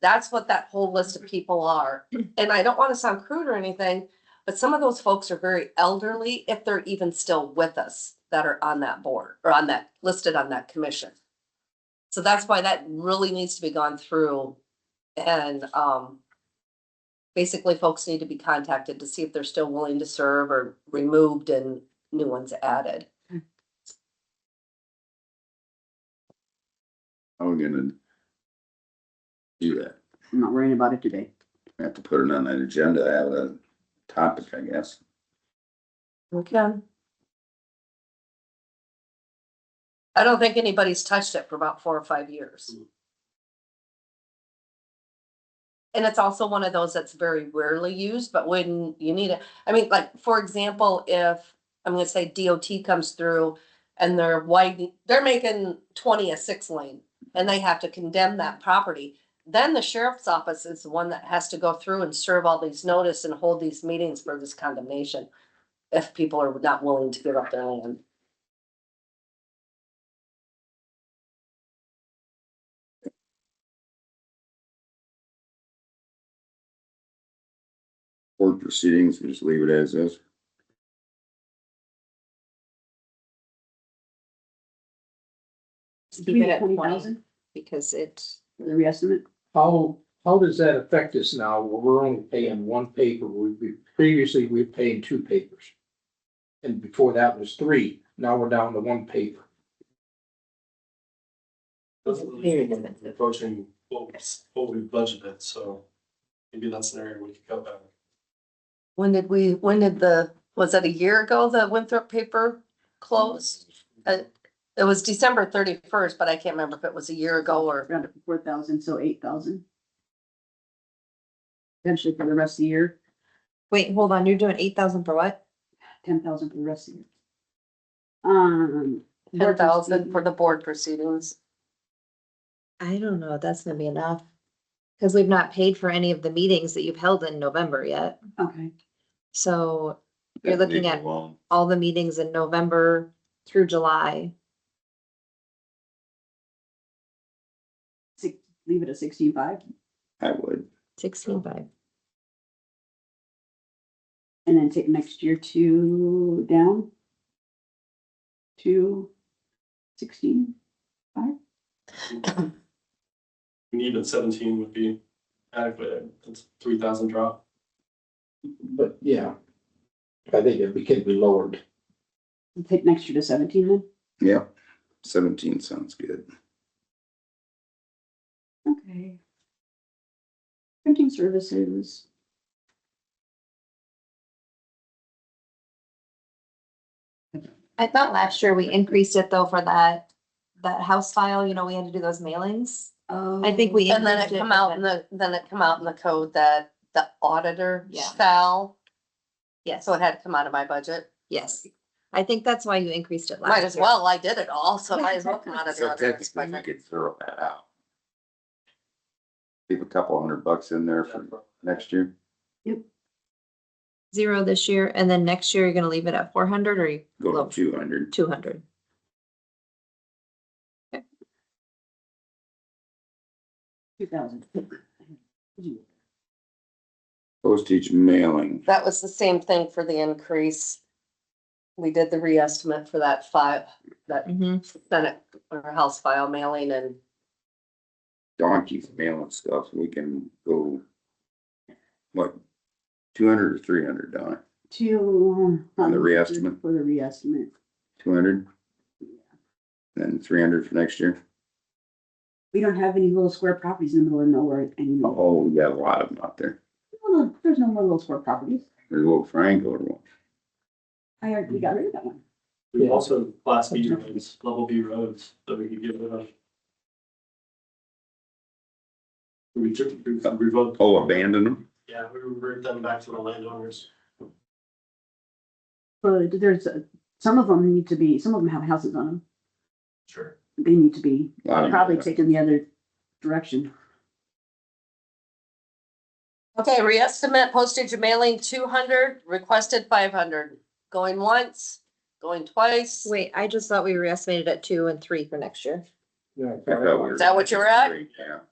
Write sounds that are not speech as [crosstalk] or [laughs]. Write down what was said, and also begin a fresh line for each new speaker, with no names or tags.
That's what that whole list of people are. And I don't want to sound crude or anything, but some of those folks are very elderly, if they're even still with us, that are on that board or on that, listed on that commission. So that's why that really needs to be gone through and, um, basically folks need to be contacted to see if they're still willing to serve or removed and new ones added.
How are we gonna do that?
I'm not worrying about it today.
We Have to put it on an agenda, have a topic, I guess.
Okay. I don't think anybody's touched it for about four or five years. And it's also one of those that's very rarely used, but when you need it, I mean, like, for example, if, I'm gonna say DOT comes through and they're widening, they're making twenty a six lane and they have to condemn that property. Then the sheriff's office is the one that has to go through and serve all these notice and hold these meetings for this condemnation if people are not willing to give up their land.
Board proceedings, we just leave it as is.
Keep it at twenty.
because it.
The reestimate,
How, how does that affect us now? where We're only paying one paper. We, we- previously, we were paying two papers. And before that was three. Now we're down to one paper.
That's what we think when we're Approaching what we, what we budgeted, so maybe that's an area we could cut back.
When did we, when did the, was that a year ago, the Winthrop paper closed? Uh, It was December thirty-first, but I can't remember if it was a year ago or,
round up to four thousand, so eight thousand. Potentially for the rest of the year,
Wait, hold on, you're doing eight thousand for what?
ten thousand for the rest of the year. Um.
ten thousand for the board proceedings.
I don't know, that's gonna be enough. Cause we've not paid for any of the meetings that you've held in November yet,
Okay,
so You're looking at-
Well,
all the meetings in November through July.
six, leave it at sixteen-five,
I would.
Sixteen five.
and then take next year to down. To sixteen,
And even seventeen would be adequate, that's three thousand drop.
But yeah. I think it could be lowered.
take next year to seventeen then,
Yeah, seventeen sounds good.
okay. Printing services.
I thought last year we increased it though for that, that house file, you know, we had to do those mailings. I think we.
And then
increased
it come
but
out in
then-
the, then it come out in the code that the auditor
Yeah.
shall,
Yes,
so it had to come out of my budget.
yes. I think that's why you increased it last year.
Might as well, I did it all, so might as well come
[laughs]
out of the
So
auditor's
technically, you
budget.
could throw that out. Leave a couple hundred bucks in there for next year.
Zero this year, and then next year you're gonna leave it at four hundred or
Go to two hundred.
two hundred?
Two thousand.
Postage mailing.
That was the same thing for the increase. We did the reestimate for that five, that
Mm-hmm.
Senate or House file mailing and
donkeys mailing stuff, we can go. What, two hundred or three hundred, Don?
To. um,
On the reestimate?
For the reestimate.
Two hundred? Then three hundred for next year?
We don't have any little square properties in the middle of nowhere anymore.
Oh, we got a lot of them out there.
No, no, There's no more little square properties.
There's a little triangle one.
I already,
Hmm.
we got rid of that one.
We also have class B roads, level B roads that we could give it up. We took, we revoked,
Oh, abandon them?
yeah, we revert them back to the landowners.
But there's, uh, some of them need to be, some of them have houses on them.
Sure.
They need to be
A lot of them.
probably taken the other direction.
Okay, reestimate postage and mailing two hundred, requested five hundred, going once, going twice. Is
Wait, I just thought we were estimated at two and three for next year.
Yeah.
I thought we were-
that what you're at?
Yeah,